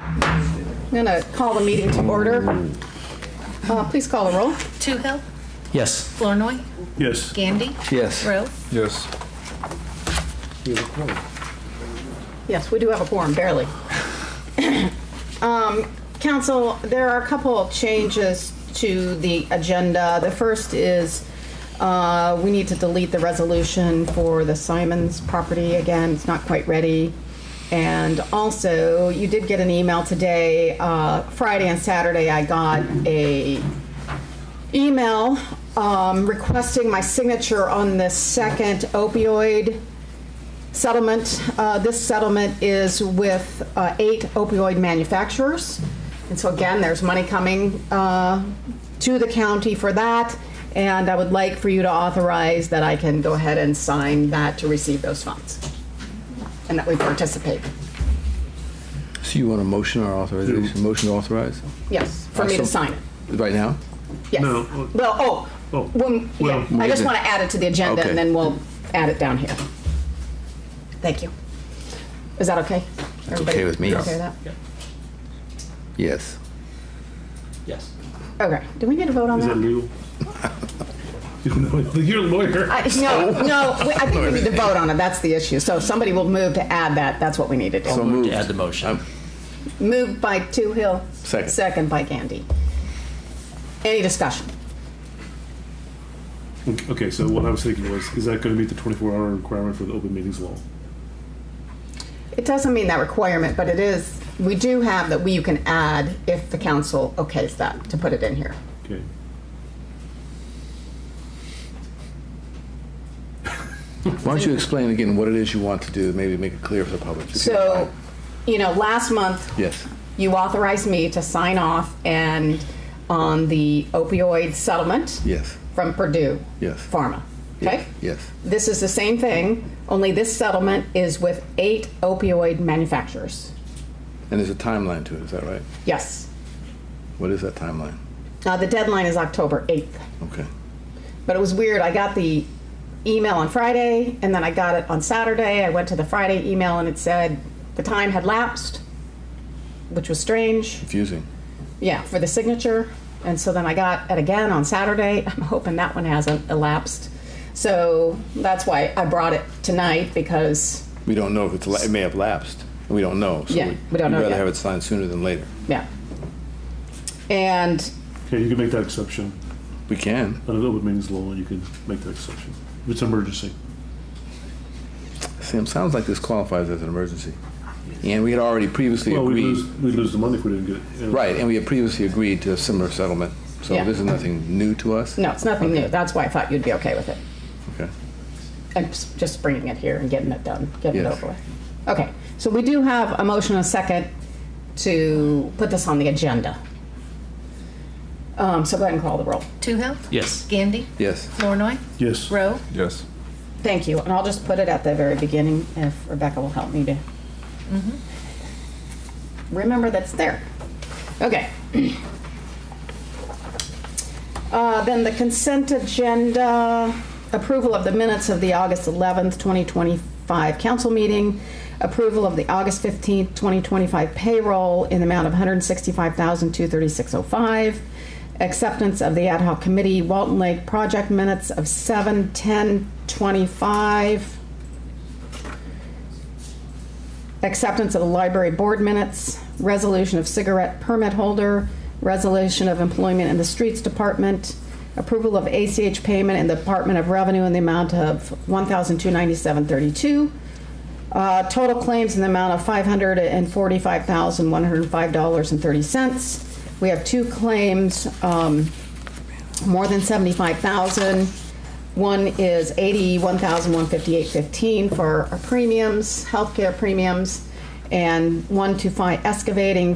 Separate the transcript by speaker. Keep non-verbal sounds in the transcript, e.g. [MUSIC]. Speaker 1: I'm going to call the meeting to order. Uh, Please call the roll.
Speaker 2: Toohill,
Speaker 3: Yes.
Speaker 2: Flournoy,
Speaker 4: Yes.
Speaker 2: Gandy,
Speaker 3: Yes.
Speaker 2: Rowe.
Speaker 5: Yes.
Speaker 1: Yes, we do have a quorum, barely. [COUGHS] Um, Council, there are a couple of changes to the agenda. The first is uh, we need to delete the resolution for the Simons property. Again, it's not quite ready. And also, you did get an email today, uh, Friday and Saturday, I got a email um, requesting my signature on the second opioid settlement. Uh, This settlement is with uh, eight opioid manufacturers. And so again, there's money coming uh, to the county for that. And I would like for you to authorize that I can go ahead and sign that to receive those funds and that we participate.
Speaker 5: So you want a motion or authorization, motion to authorize?
Speaker 1: Yes, for me to sign it.
Speaker 5: Right now?
Speaker 1: Yes.
Speaker 4: No,
Speaker 1: Well, oh,
Speaker 4: Oh,
Speaker 1: when- yeah,
Speaker 4: well,
Speaker 1: I just
Speaker 5: we-
Speaker 1: want to add it to the agenda
Speaker 5: Okay.
Speaker 1: and then we'll add it down here. Thank you. Is that okay? Everybody
Speaker 5: okay with me.
Speaker 1: Okay with that?
Speaker 5: Yes.
Speaker 3: Yes.
Speaker 1: Okay, do we need to vote on
Speaker 4: Is
Speaker 1: that?
Speaker 4: that legal? [LAUGHS] You're a lawyer.
Speaker 1: I- No, no, we- I think we need to vote on it, that's the issue. So if somebody will move to add that, that's what we need to
Speaker 5: So
Speaker 1: do.
Speaker 5: moved.
Speaker 3: To add the motion.
Speaker 1: Moved by Toohill.
Speaker 5: Second.
Speaker 1: Second by Gandy. Any discussion?
Speaker 4: Okay, so what I was thinking was, is that going to meet the 24-hour requirement for the open meetings law?
Speaker 1: It doesn't mean that requirement, but it is, we do have that we, you can add if the council okays that, to put it in here.
Speaker 4: Okay.
Speaker 5: Why don't you explain again what it is you want to do, maybe make it clear for the public?
Speaker 1: So, you know, last month,
Speaker 5: Yes.
Speaker 1: you authorized me to sign off and on the opioid settlement
Speaker 5: Yes.
Speaker 1: from Purdue
Speaker 5: Yes.
Speaker 1: Pharma, okay?
Speaker 5: Yes.
Speaker 1: This is the same thing, only this settlement is with eight opioid manufacturers.
Speaker 5: And there's a timeline to it, is that right?
Speaker 1: Yes.
Speaker 5: What is that timeline?
Speaker 1: Uh, the deadline is October 8th.
Speaker 5: Okay.
Speaker 1: But it was weird. I got the email on Friday, and then I got it on Saturday. I went to the Friday email, and it said the time had lapsed, which was strange.
Speaker 5: Confusing.
Speaker 1: Yeah, for the signature. And so then I got it again on Saturday. [LAUGHS] I'm hoping that one hasn't elapsed. So that's why I brought it tonight because,
Speaker 5: We don't know if it's, la- it may have lapsed. We don't know. so
Speaker 1: Yeah, we don't know
Speaker 5: We'd rather
Speaker 1: yet.
Speaker 5: have it signed sooner than later.
Speaker 1: yeah. And
Speaker 4: Okay, you can make that exception.
Speaker 5: We can.
Speaker 4: Under the open meetings law, you can make that exception. If it's an emergency.
Speaker 5: Sam, sounds like this qualifies as an emergency. And we had already previously
Speaker 4: Well, we
Speaker 5: agreed.
Speaker 4: lose, we lose the money if we didn't get it. you know.
Speaker 5: Right, and we had previously agreed to a similar settlement. So
Speaker 1: Yeah.
Speaker 5: this is nothing new to us?
Speaker 1: no, it's nothing new. That's why I thought you'd be okay with it.
Speaker 5: Okay.
Speaker 1: and s- just bringing it here and getting it done, getting it
Speaker 5: Yes.
Speaker 1: over with. Okay, so we do have a motion and a second to put this on the agenda. Um, so go ahead and call the roll.
Speaker 2: Toohill,
Speaker 3: Yes.
Speaker 2: Gandy,
Speaker 5: Yes.
Speaker 2: Flournoy,
Speaker 4: Yes.
Speaker 2: Rowe.
Speaker 5: Yes.
Speaker 1: Thank you, and I'll just put it at the very beginning if Rebecca will help me to remember that's there. Okay. Uh, Then the consent agenda, approval of the minutes of the August 11th, 2025 council meeting, approval of the August 15th, 2025 payroll in the amount of 165236 oh acceptance of the ad hoc committee Walton Lake project minutes of 7:10:25, acceptance of the library board minutes, resolution of cigarette permit holder, resolution of employment in the streets department, approval of ACH payment in the Department of Revenue in the amount of $1,297.32, uh, total claims in the amount of $545,105.30. We have two claims, um, more than 75,000. One is 81,158.15 for our premiums, healthcare premiums, and one to find excavating